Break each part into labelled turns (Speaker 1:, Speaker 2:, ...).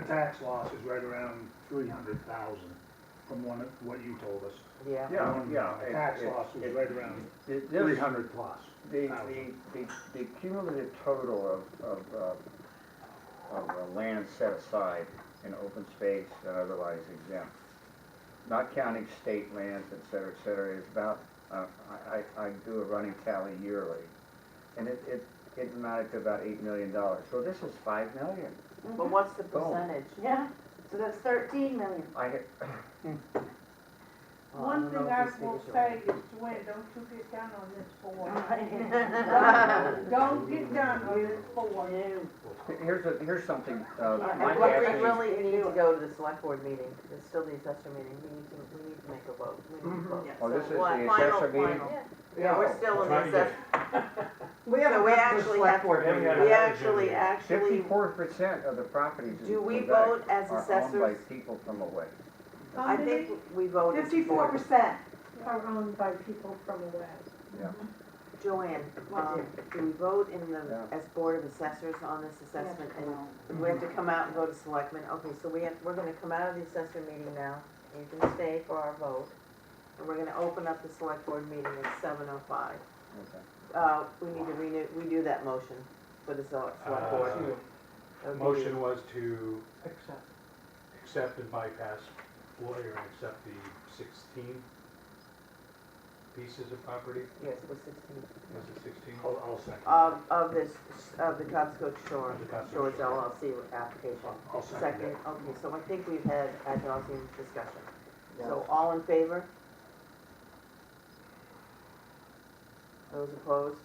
Speaker 1: tax loss is right around three hundred thousand, from one, of what you told us.
Speaker 2: yeah.
Speaker 1: Yeah,
Speaker 3: yeah, it-
Speaker 1: Tax
Speaker 3: it-
Speaker 1: loss was
Speaker 3: it-
Speaker 1: right around
Speaker 3: The- this-
Speaker 1: three hundred plus.
Speaker 3: The, the,
Speaker 1: thousand.
Speaker 3: the, the cumulative total of, of, uh, of uh, land set aside in open space and otherwise exempt, not counting state lands, et cetera, et cetera, is about, uh, I, I, I do a running tally yearly. And it, it, it amounted to about eight million dollars, so this is five million.
Speaker 4: But what's the
Speaker 3: Boom.
Speaker 4: percentage?
Speaker 5: Yeah, so that's thirteen million.
Speaker 3: I, had-
Speaker 4: Oh,
Speaker 2: Well, I
Speaker 5: One
Speaker 2: don't
Speaker 5: thing Oh, I
Speaker 2: know if these
Speaker 5: will
Speaker 2: figures are-
Speaker 5: say is, Dwayne, don't you get down on this
Speaker 4: Right.
Speaker 5: board. Don't get down on this board.
Speaker 3: here's a, here's something, uh,
Speaker 4: And
Speaker 3: Mike
Speaker 4: what we
Speaker 3: asked me-
Speaker 4: really need to go to the select board meeting, it still the assessor meeting, we need to, we need to make a vote, we need to vote.
Speaker 3: Oh, this
Speaker 4: So
Speaker 3: is
Speaker 4: what-
Speaker 3: the
Speaker 4: final,
Speaker 3: assessor meeting?
Speaker 4: final.
Speaker 3: Yeah.
Speaker 4: Yeah, we're still in the
Speaker 6: Trying to get-
Speaker 4: assessor, so we actually have, we actually, actually,
Speaker 3: Fifty-four percent of the properties in
Speaker 4: do we
Speaker 3: Quebec
Speaker 4: vote as
Speaker 3: are owned by
Speaker 4: assessors?
Speaker 3: people from away.
Speaker 4: I think we vote as a
Speaker 5: Fifty-four
Speaker 4: board.
Speaker 5: percent.
Speaker 7: are owned by people from the west.
Speaker 4: Joanne, um, do we vote in the,
Speaker 3: Yeah.
Speaker 4: as board of assessors on this assessment? And we have to come out and go to selectmen, okay, so we have, we're gonna come out of the assessor meeting now, you can stay for our vote. And we're gonna open up the select board meeting at seven oh five.
Speaker 3: Okay.
Speaker 4: Uh, we need to renew, redo that motion for the select select board.
Speaker 6: Uh,
Speaker 4: Okay.
Speaker 6: Motion was to accept and bypass lawyer and accept the sixteen pieces of property,
Speaker 4: Yes, it was sixteen,
Speaker 6: was it sixteen? Uh,
Speaker 1: I'll, I'll second.
Speaker 4: of, of this, of the Cobscoat Shore,
Speaker 6: Of the Cobscote
Speaker 4: Shores
Speaker 6: Shore.
Speaker 4: LLC application.
Speaker 1: I'll- I'll second
Speaker 4: Second,
Speaker 1: that.
Speaker 4: okay, so I think we've had a housing discussion. So
Speaker 3: Yeah.
Speaker 4: all in favor? Those opposed?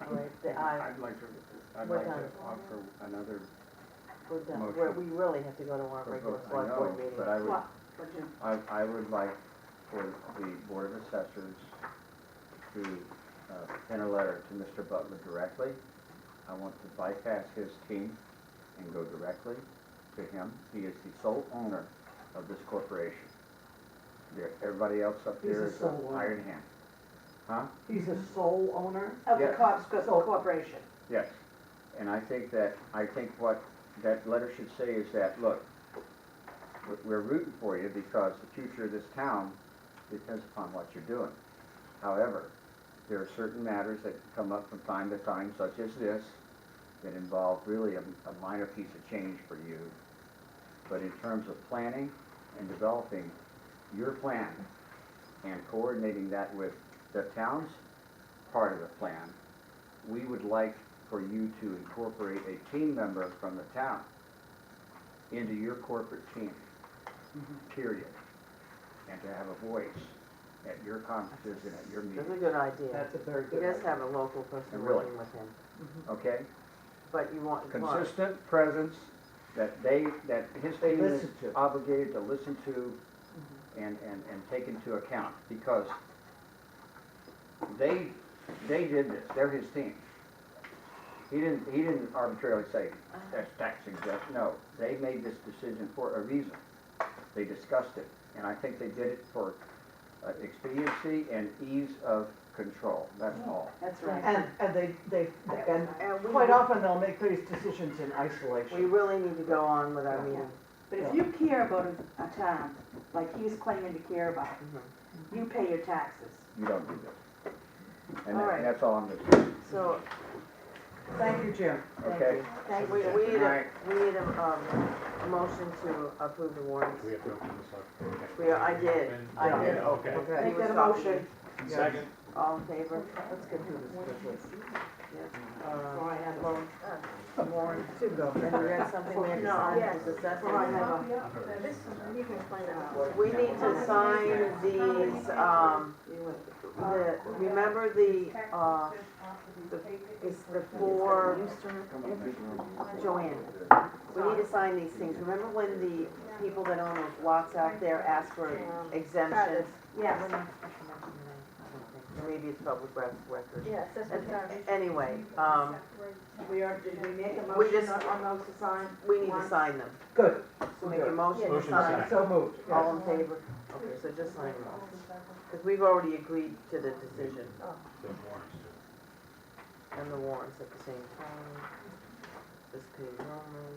Speaker 4: All right, the uh, aye,
Speaker 3: I'd like to, I'd
Speaker 4: We're
Speaker 3: like to
Speaker 4: done.
Speaker 3: offer another
Speaker 4: we're done, We're- we really have to go to our regular
Speaker 3: proposal, I
Speaker 4: select board
Speaker 3: know,
Speaker 4: meeting.
Speaker 3: but I would,
Speaker 5: What? What'd you-
Speaker 3: I, I would like for the Board of Assessors to, uh, send a letter to Mr. Butler directly. I want to bypass his team and go directly to him. He is the sole owner of this corporation. There, everybody else up
Speaker 2: He's
Speaker 3: there
Speaker 2: the
Speaker 3: is an
Speaker 2: sole owner.
Speaker 3: iron hand. Huh?
Speaker 2: He's a sole owner?
Speaker 5: Of the
Speaker 3: Yeah.
Speaker 5: Cobscoat Corporation.
Speaker 3: Yes, and I think that, I think what that letter should say is that, look, we're- we're rooting for you because the future of this town depends upon what you're doing. However, there are certain matters that come up from time to time, such as this, that involve really a, a minor piece of change for you. But in terms of planning and developing your plan and coordinating that with the town's part of the plan, we would like for you to incorporate a team member from the town into your corporate team, period. And to have a voice at your conferences and at your
Speaker 4: That's a
Speaker 3: meetings,
Speaker 4: good idea.
Speaker 2: That's a very
Speaker 4: He
Speaker 2: good
Speaker 4: does
Speaker 2: idea.
Speaker 4: have a local person
Speaker 3: Really?
Speaker 4: working with him,
Speaker 3: okay?
Speaker 4: but you want, you want-
Speaker 3: Consistent presence that they, that his
Speaker 2: They
Speaker 3: team is
Speaker 2: listen to. Mm-hmm.
Speaker 3: obligated to listen to and, and, and take into account, because they, they did this, they're his team. He didn't, he didn't arbitrarily say,
Speaker 2: Uh-huh.
Speaker 3: that's tax exempt, no, they made this decision for a reason. They discussed it, and I think they did it for uh, expediency and ease of control, that's all.
Speaker 4: that's right.
Speaker 2: And, and they, they, and
Speaker 4: And we,
Speaker 2: quite often they'll make these decisions in
Speaker 4: we
Speaker 2: isolation.
Speaker 4: really need to go on with our meeting.
Speaker 7: But if you care about a- a town, like he's claiming to care about,
Speaker 4: Mhm.
Speaker 7: you pay your taxes.
Speaker 3: You don't do this. And
Speaker 4: All
Speaker 3: that-
Speaker 4: right.
Speaker 3: that's all I'm gonna say,
Speaker 4: So,
Speaker 2: Thank you, Jim.
Speaker 4: thank
Speaker 3: okay?
Speaker 4: you. We, we need a, we need a, um, a motion to approve the warrants.
Speaker 6: We have to open this up.
Speaker 4: We, I did, I
Speaker 2: Yeah,
Speaker 4: did.
Speaker 6: Okay.
Speaker 2: Okay.
Speaker 4: He
Speaker 5: Make
Speaker 4: was
Speaker 5: that a
Speaker 4: talking.
Speaker 5: motion.
Speaker 6: Second.
Speaker 4: All in favor?
Speaker 2: Let's get through this quickly.
Speaker 4: Uh,
Speaker 5: I have
Speaker 4: vote. Warrant.
Speaker 2: Uh, To go.
Speaker 4: And we got something we have to sign as
Speaker 5: I
Speaker 4: assessment.
Speaker 5: have a,
Speaker 7: This is, you can find out.
Speaker 4: We need to sign these, um, the, remember the, uh, the, it's the four, Joanne. We need to sign these things. Remember when the people that own those lots out there asked for exemptions?
Speaker 7: Yes,
Speaker 4: Maybe it's public rec- record.
Speaker 7: yes, that's what I'm-
Speaker 4: Anyway, um,
Speaker 5: we are, did we make a
Speaker 4: We
Speaker 5: motion
Speaker 4: just-
Speaker 5: on on those to sign?
Speaker 4: we need to sign them.
Speaker 2: Good,
Speaker 4: So make a motion to
Speaker 6: Motion to
Speaker 4: sign.
Speaker 6: sign.
Speaker 2: so moved. yes.
Speaker 4: All in favor? Okay, so just sign them all. Because we've already agreed to the decision
Speaker 6: The warrants.
Speaker 4: and the warrants at the same time. This page only.